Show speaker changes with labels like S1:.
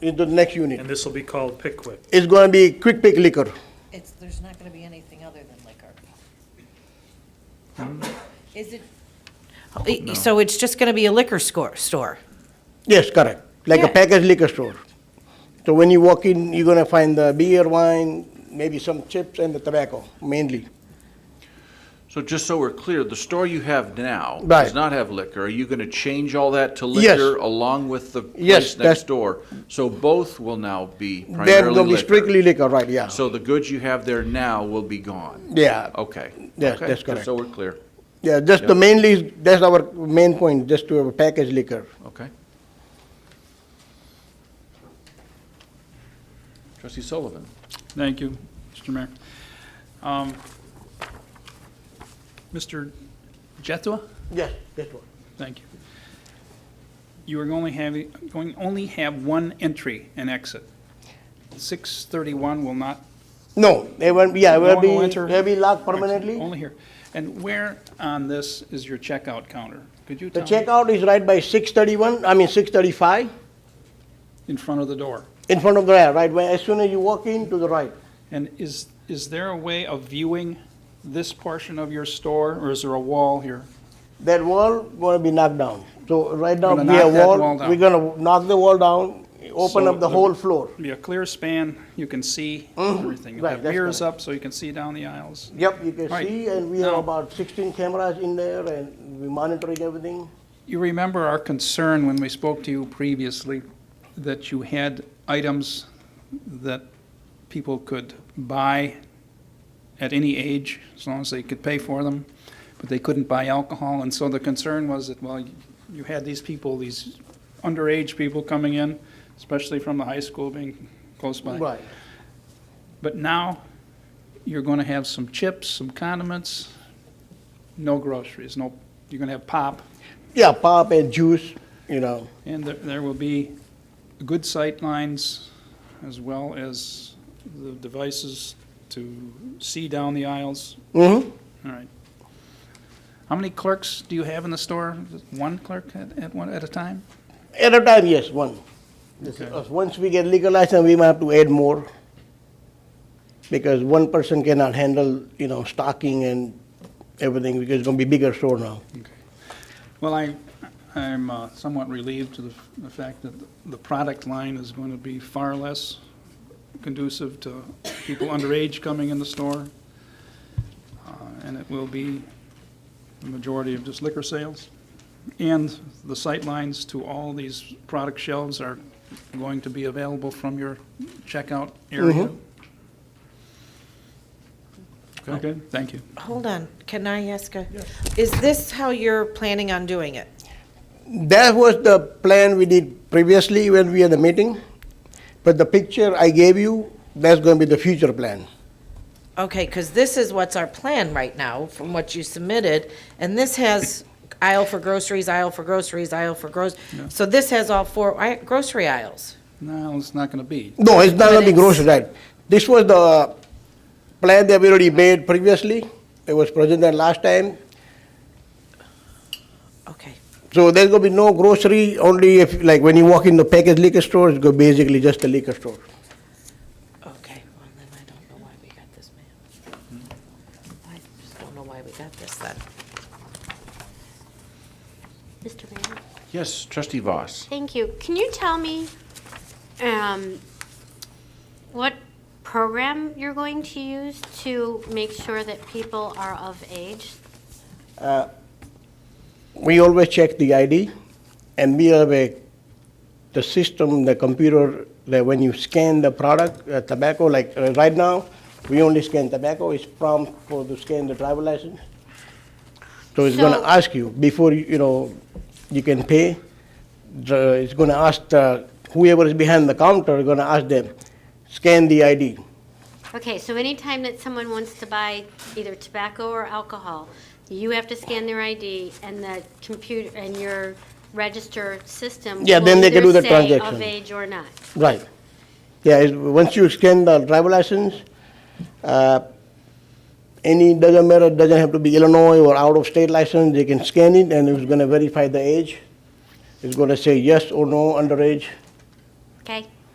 S1: into the next unit.
S2: and this will be called Pickwick.
S1: It's gonna be quick pick liquor.
S3: It's, there's not gonna be anything other than liquor. Is Oh, it? So it's just gonna be a liquor score, store?
S1: Yes, correct. Like a
S3: Yeah.
S1: packaged liquor store. So when you walk in, you're gonna find the beer, wine, maybe some chips and the tobacco mainly.
S4: So just so we're clear, the store you have now
S1: Right.
S4: does not have liquor. Are you going to change all that to
S1: Yes.
S4: liquor along with the
S1: Yes,
S4: place
S1: that's-
S4: next door? So both will now be
S1: They're
S4: primarily
S1: gonna be strictly
S4: liquor.
S1: liquor, right, yeah.
S4: So the goods you have there now will be gone?
S1: Yeah.
S4: Okay.
S1: Yes,
S4: Okay,
S1: that's
S4: just
S1: correct.
S4: So we're clear,
S1: Yeah, just the
S4: Yeah.
S1: mainly, that's our main point, just to have a packaged liquor.
S4: okay. Trustee Sullivan?
S5: Thank you, Mr. Mayor. Um, Mr. Jetua,
S1: Yes, that's what.
S5: thank you. You are only having, going, only have one entry and exit. 631 will not.
S1: No, they won't, yeah,
S5: no
S1: will
S5: one will
S1: be,
S5: enter-
S1: they'll be locked permanently.
S5: Only here. And where on this is your checkout counter? Could you
S1: The
S5: tell me?
S1: checkout is right by six thirty-one, I mean six thirty-five,
S5: In front of the door.
S1: in front of the, right, where, as soon as you walk in, to the right.
S5: And is, is there a way of viewing this portion of your store, or is there a wall here?
S1: That wall gonna be knocked down. So right now,
S5: Gonna
S1: we have
S5: knock that
S1: wall,
S5: wall down.
S1: we're gonna knock the wall down, open
S5: So
S1: up the whole floor. Mm-hmm.
S5: Be a clear span, you can see everything. You'll
S1: Right,
S5: have
S1: that's
S5: mirrors
S1: correct.
S5: up so you can see down the aisles.
S1: Yep, you can
S5: Right.
S1: see, and we have
S5: Now-
S1: about sixteen cameras in there, and we monitoring everything.
S5: You remember our concern when we spoke to you previously that you had items that people could buy at any age, as long as they could pay for them, but they couldn't buy alcohol. And so the concern was that, well, you had these people, these underage people coming in, especially from the high school being close by.
S1: Right,
S5: But now, you're going to have some chips, some condiments, no groceries, no, you're going to have pop,
S1: yeah, pop and juice, you know,
S5: and there- there will be good sight lines as well as the devices to see down the aisles.
S1: hmm
S5: All right. How many clerks do you have in the store? One clerk at, at one, at a time?
S1: At a time, yes, one. This-
S5: Okay.
S1: uh, Once we get legalized, then we might have to add more. Because one person cannot handle, you know, stocking and everything, because it's gonna be bigger store now.
S5: Well, I, I'm uh, somewhat relieved to the, f- the fact that the product line is going to be far less conducive to people underage coming in the store. Uh, And it will be the majority of just liquor sales. And the sight lines to all these product shelves are going to be available from your checkout area. Okay, thank you.
S3: Hold on, can I ask a, is this how you're planning on doing it?
S1: That was the plan we did previously when we had the meeting, but the picture I gave you, that's gonna be the future plan.
S3: Okay, because this is what's our plan right now, from what you submitted, and this has aisle for groceries, aisle for groceries, aisle for groceries. So this has all four i- grocery aisles.
S5: No, it's not going to be.
S1: No, it's not gonna be
S3: But it's-
S1: grocery, right? This was the plan that we already made previously, it was presented last time,
S3: Okay,
S1: So there's gonna be no grocery, only if, like, when you walk in the packaged liquor store, it's gonna basically just a liquor store.
S3: okay, well, then I don't know why we got this, ma'am. I just don't know why we got this then.
S6: Mr. Mayor,
S4: Yes, trustee Voss?
S6: thank you. Can you tell me um, what program you're going to use to make sure that people are of age?
S1: We always check the ID, and we have a, the system, the computer, that when you scan the product, uh, tobacco, like, uh, right now, we only scan tobacco, it's prompt for to scan the driver license. So it's gonna
S6: So-
S1: ask you, before, you you know, you can pay, the, it's gonna ask the, whoever is behind the counter, gonna ask them, scan the ID.
S6: Okay, so anytime that someone wants to buy either tobacco or alcohol, you have to scan their ID and the computer, and your register system
S1: Yeah,
S6: will
S1: then they can
S6: either
S1: do the
S6: say
S1: transaction.
S6: of age or not.
S1: Right. Yeah, it's- once you scan the driver license, uh, any, doesn't matter, doesn't have to be Illinois or out-of-state license, they can scan it and it's gonna verify the age. It's gonna say yes or no underage.
S6: Okay,